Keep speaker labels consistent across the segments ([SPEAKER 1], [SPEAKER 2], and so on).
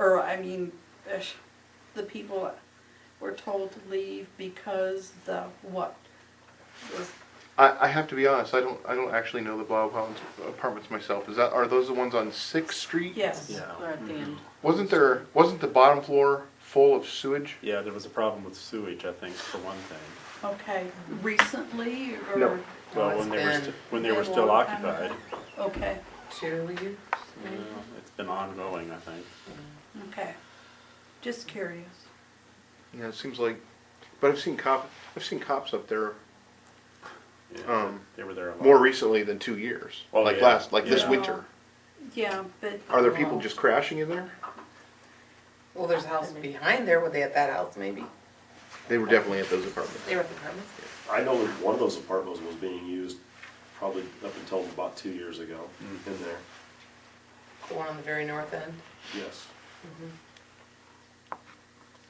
[SPEAKER 1] I mean, eh, the people were told to leave because the what? Was-
[SPEAKER 2] I, I have to be honest, I don't, I don't actually know the Bob Hounds apartments myself. Is that, are those the ones on Sixth Street?
[SPEAKER 1] Yes,
[SPEAKER 3] Yeah.
[SPEAKER 1] they're at the end.
[SPEAKER 2] Wasn't there, wasn't the bottom floor full of sewage?
[SPEAKER 3] Yeah, there was a problem with sewage, I think, for one thing.
[SPEAKER 1] Okay, recently or?
[SPEAKER 2] No.
[SPEAKER 4] Well,
[SPEAKER 3] Well,
[SPEAKER 4] Oh, it's
[SPEAKER 3] when they were,
[SPEAKER 4] been-
[SPEAKER 3] st- when they were
[SPEAKER 1] Been a
[SPEAKER 3] still
[SPEAKER 1] long time now.
[SPEAKER 3] occupied,
[SPEAKER 1] Okay,
[SPEAKER 4] Two years?
[SPEAKER 3] you know, it's been ongoing, I think.
[SPEAKER 1] okay. Just curious.
[SPEAKER 2] Yeah, it seems like, but I've seen cop, I've seen cops up there
[SPEAKER 3] Yeah,
[SPEAKER 2] Um,
[SPEAKER 3] They were there a lot.
[SPEAKER 2] more recently than two years.
[SPEAKER 3] Oh,
[SPEAKER 2] Like
[SPEAKER 3] yeah.
[SPEAKER 2] last, like this
[SPEAKER 3] Yeah.
[SPEAKER 2] winter.
[SPEAKER 1] Yeah, but.
[SPEAKER 2] Are there people just crashing in there?
[SPEAKER 4] Well, there's a house behind there, were they at that house maybe?
[SPEAKER 2] They were definitely at those apartments.
[SPEAKER 4] They were at the premise?
[SPEAKER 5] I know that one of those apartments was being used probably up until about two years ago in there,
[SPEAKER 4] The one on the very north end?
[SPEAKER 5] yes.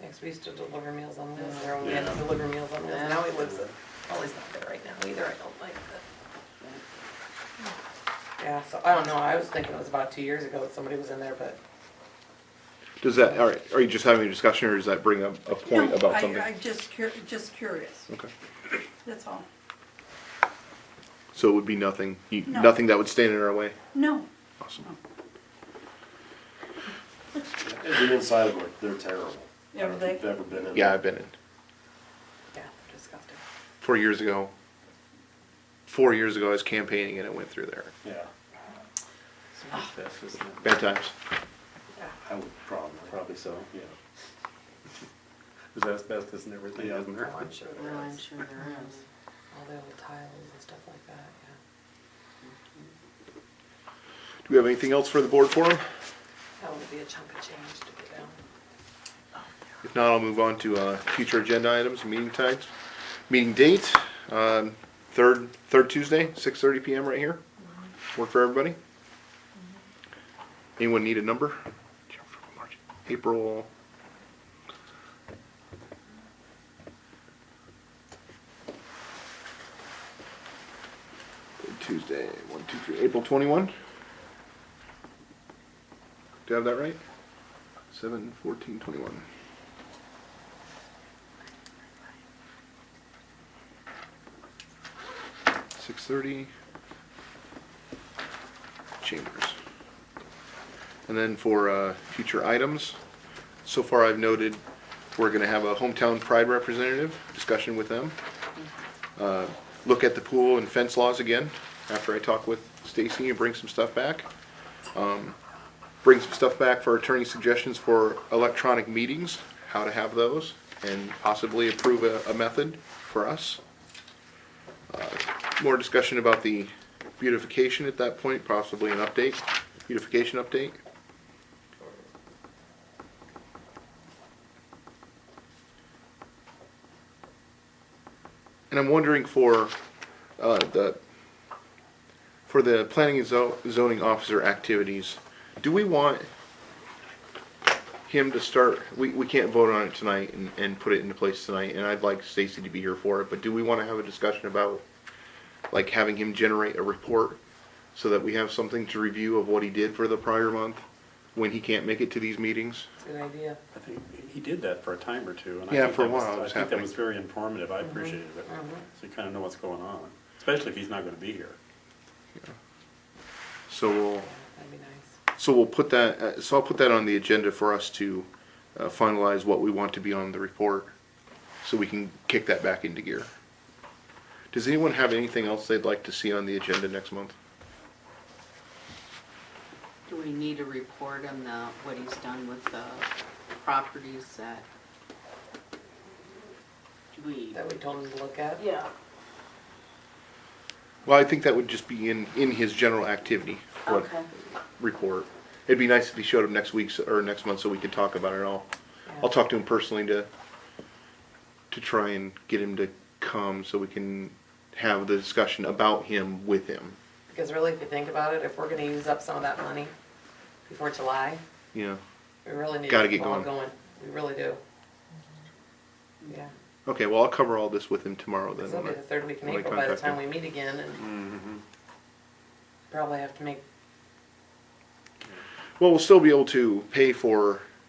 [SPEAKER 4] Next, we used to deliver meals on wheels there, when we had to
[SPEAKER 3] Yeah.
[SPEAKER 4] deliver meals on wheels, now he lives, at- well, he's not there right now either, I don't like that. Yeah, so I don't know, I was thinking it was about two years ago that somebody was in there, but
[SPEAKER 2] Does that, all right, are you just having a discussion or does that bring up a point
[SPEAKER 1] No,
[SPEAKER 2] about
[SPEAKER 1] I-
[SPEAKER 2] something?
[SPEAKER 1] I'm just cur, just curious,
[SPEAKER 2] Okay.
[SPEAKER 1] that's all.
[SPEAKER 2] So it would be nothing, you-
[SPEAKER 1] No.
[SPEAKER 2] nothing that would stand in our way?
[SPEAKER 1] No,
[SPEAKER 2] Awesome.
[SPEAKER 5] And the inside of it, they're terrible. I don't know if
[SPEAKER 1] Are they?
[SPEAKER 5] you've Ever been in?
[SPEAKER 2] Yeah, I've
[SPEAKER 5] there.
[SPEAKER 2] been in.
[SPEAKER 4] yeah, disgusting.
[SPEAKER 2] Four years ago, four years ago, I was campaigning and it went through there.
[SPEAKER 5] Yeah,
[SPEAKER 2] Bad times.
[SPEAKER 5] I would probably,
[SPEAKER 3] Probably so.
[SPEAKER 5] yeah.
[SPEAKER 3] There's asbestos and everything,
[SPEAKER 5] Yeah.
[SPEAKER 3] isn't there?
[SPEAKER 4] Oh, I'm sure there
[SPEAKER 6] No,
[SPEAKER 4] is.
[SPEAKER 6] I'm sure there is.
[SPEAKER 4] All the old tiles and stuff like that, yeah.
[SPEAKER 2] Do we have anything else for the board forum?
[SPEAKER 4] That would be a chunk of change to get down.
[SPEAKER 2] If not, I'll move on to uh, future agenda items, meeting times, meeting date, um, third, third Tuesday, 6:30 PM right here. Work for everybody? Anyone need a number? April, Tuesday, one, two, three, April 21? Do I have that right? 7, 14, 21. Six thirty. Chambers. And then for uh, future items, so far I've noted we're gonna have a hometown pride representative, discussion with them. Uh, Look at the pool and fence laws again, after I talk with Stacy and bring some stuff back. Um, Bring some stuff back for attorney suggestions for electronic meetings, how to have those, and possibly approve a, a method for us more discussion about the beautification at that point, possibly an update, beautification update. And I'm wondering for, uh, the, for the planning and zo- zoning officer activities, do we want him to start, we, we can't vote on it tonight and, and put it into place tonight, and I'd like Stacy to be here for it, but do we wanna have a discussion about like having him generate a report so that we have something to review of what he did for the prior month when he can't make it to these meetings.
[SPEAKER 4] It's a good idea.
[SPEAKER 3] I think he did that for a time or two. and I
[SPEAKER 2] Yeah,
[SPEAKER 3] think
[SPEAKER 2] for a
[SPEAKER 3] that was-
[SPEAKER 2] while it was
[SPEAKER 3] I think that
[SPEAKER 2] happening.
[SPEAKER 3] was very informative.
[SPEAKER 1] Mm-hmm.
[SPEAKER 3] I appreciated it. So you kind of know what's going on, especially if he's not going to be here.
[SPEAKER 2] So we'll,
[SPEAKER 4] Yeah, that'd be nice.
[SPEAKER 2] so we'll put that, uh, so I'll put that on the agenda for us to uh, finalize what we want to be on the report so we can kick that back into gear. Does anyone have anything else they'd like to see on the agenda next month?
[SPEAKER 6] Do we need a report on the, what he's done with the properties that we,
[SPEAKER 4] That we told him to look at.
[SPEAKER 6] yeah,
[SPEAKER 2] Well, I think that would just be in, in his general activity. what-
[SPEAKER 6] okay.
[SPEAKER 2] report. It'd be nice if he showed up next week or next month so we could talk about it all.
[SPEAKER 4] Yeah.
[SPEAKER 2] I'll talk to him personally to to try and get him to come so we can have the discussion about him with him.
[SPEAKER 4] Because really, if you think about it, if we're gonna use up some of that money before July,
[SPEAKER 2] You know.
[SPEAKER 4] we really need
[SPEAKER 2] Gotta
[SPEAKER 4] to get
[SPEAKER 2] get
[SPEAKER 4] the ball
[SPEAKER 2] going.
[SPEAKER 4] going. We really do. Yeah,
[SPEAKER 2] Okay, well I'll cover all this with him tomorrow then.
[SPEAKER 4] this will be the third week in
[SPEAKER 2] when I
[SPEAKER 4] April by the
[SPEAKER 2] contact
[SPEAKER 4] time we
[SPEAKER 2] him.
[SPEAKER 4] meet again and probably have to make,
[SPEAKER 2] Well, we'll still be able to pay for